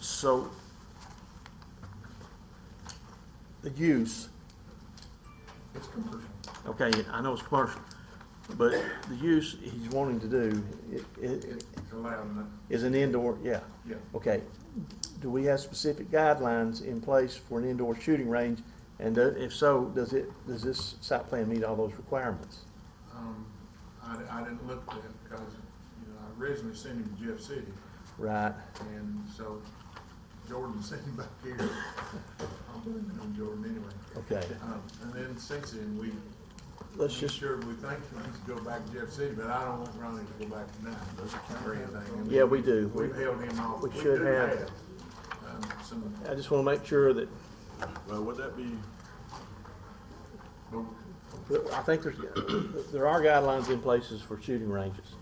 So the use, It's commercial. okay, I know it's commercial, but the use he's wanting to do i- i- It's allowed, in the- is an indoor, yeah. yeah. Okay, do we have specific guidelines in place for an indoor shooting range? And do- if so, does it, does this site plan meet all those requirements? Um, I, I didn't look at it because, you know, I originally sent him to Jeff City Right, and so Jordan sent him back here. I'm blaming on Jordan anyway. okay, Um, and then since then, we, we let's just, sure, we think he needs to go back to Jeff City, but I don't want Ronnie to go back tonight or anything. yeah, we do. We- We've held him off. we We should do have. Um, some, I just wanna make sure that, Well, would that be, but that- I think there's, there are guidelines in places for shooting ranges,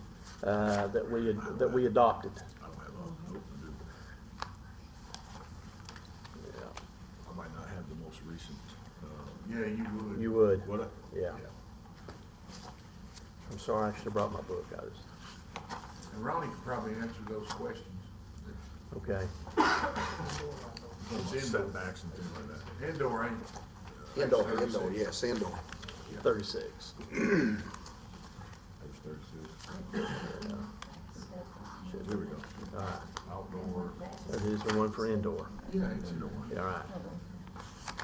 uh, that we, had- that we adopted. uh, I don't have all the notes, do I? I might not have the most recent, uh, yeah, you would. You would, what, I- yeah. I'm sorry, I should've brought my book, I just, And Ronnie could probably answer those questions. okay. It's indoor. setbacks and things like that. Indoor ain't. Indoor, indoor, yes, indoor. Thirty-six, There's thirty-six. There we go. Outdoor. that is the one for indoor. Yeah, it's indoor. All right.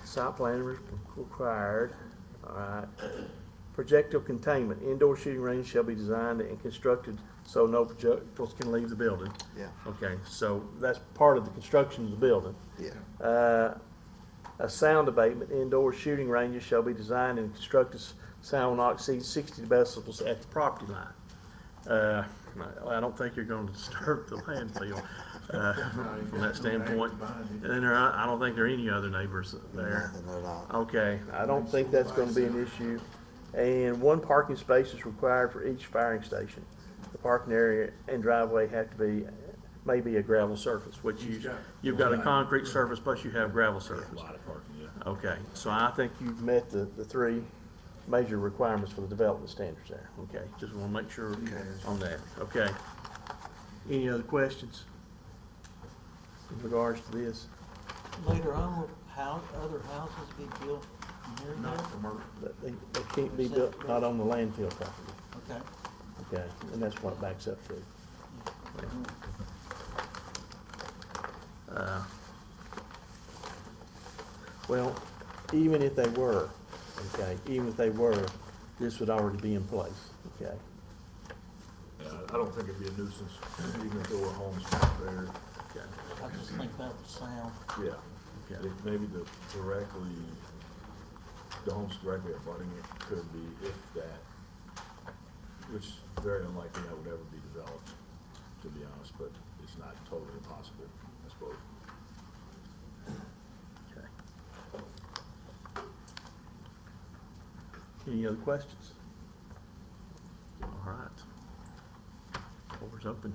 Site plan re- required, all right. Projectile containment, indoor shooting range shall be designed and constructed so no projectiles can leave the building. Yeah. Okay, so that's part of the construction of the building. Yeah, Uh, A sound abatement, indoor shooting ranges shall be designed and constructed, s- sound will not exceed sixty decibels at the property line. Uh, I I don't think you're gonna disturb the landfill, uh, from that standpoint. And then there, are- I don't think there are any other neighbors there. nothing at all. Okay, I don't think that's gonna be an issue. And one parking space is required for each firing station. The parking area and driveway have to be, maybe a gravel surface, which He's you, got- you've got a concrete surface, plus you have gravel A surface. lot of parking, yeah. Okay, so I think you've met the, the three major requirements for the development standards there. Okay, just wanna make sure on that, okay? Any other questions in regards to this? Later on, will house, other houses be built near there? Not commercial. That They, they can't be built, not on the landfill property. Okay. Okay, and that's what it backs up to. Uh, Well, even if they were, okay, even if they were, this would already be in place, okay? Yeah, I- I don't think it'd be a nuisance, even if there were homes back there. Okay. I just think that would sound, Yeah. Yeah. They- Maybe the directly, the homes directly abutting it could be if that, which is very unlikely that would ever be developed, to be honest, but it's not totally impossible, I suppose. Okay. Any other questions? All right. Floor's open.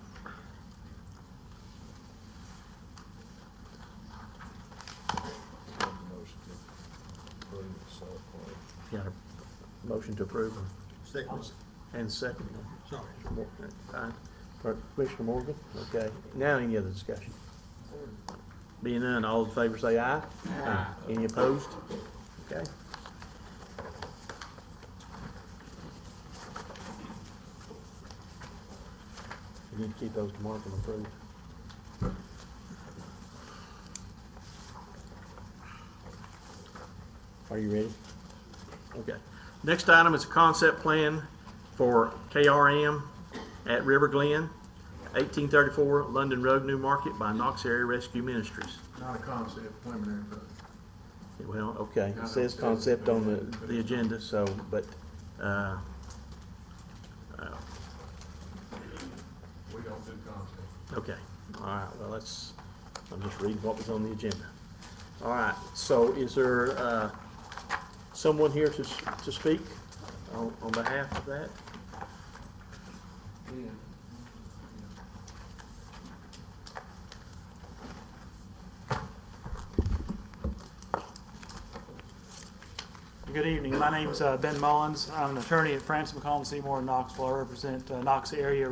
Got a motion to approve Second. and second. Sorry. Commissioner Morgan, okay. Now any other discussion? Being none, all in favor say aye. Aye. Any opposed? Okay. You need to keep those to mark and approve. Are you ready? Okay. Next item is a concept plan for KRM at River Glen, eighteen thirty-four London Road, New Market by Knox Area Rescue Ministries. Not a concept, preliminary, but Well, okay, it says concept on the, the agenda, so, but, uh, uh, we don't do concept. okay, all right, well, let's, I'm just reading what was on the agenda. All right, so is there, uh, someone here to, s- to speak on, on behalf of that? Yeah. Good evening. My name's uh, Ben Mullins. I'm an attorney at France McCollum Seymour in Knoxville. I represent uh, Knox area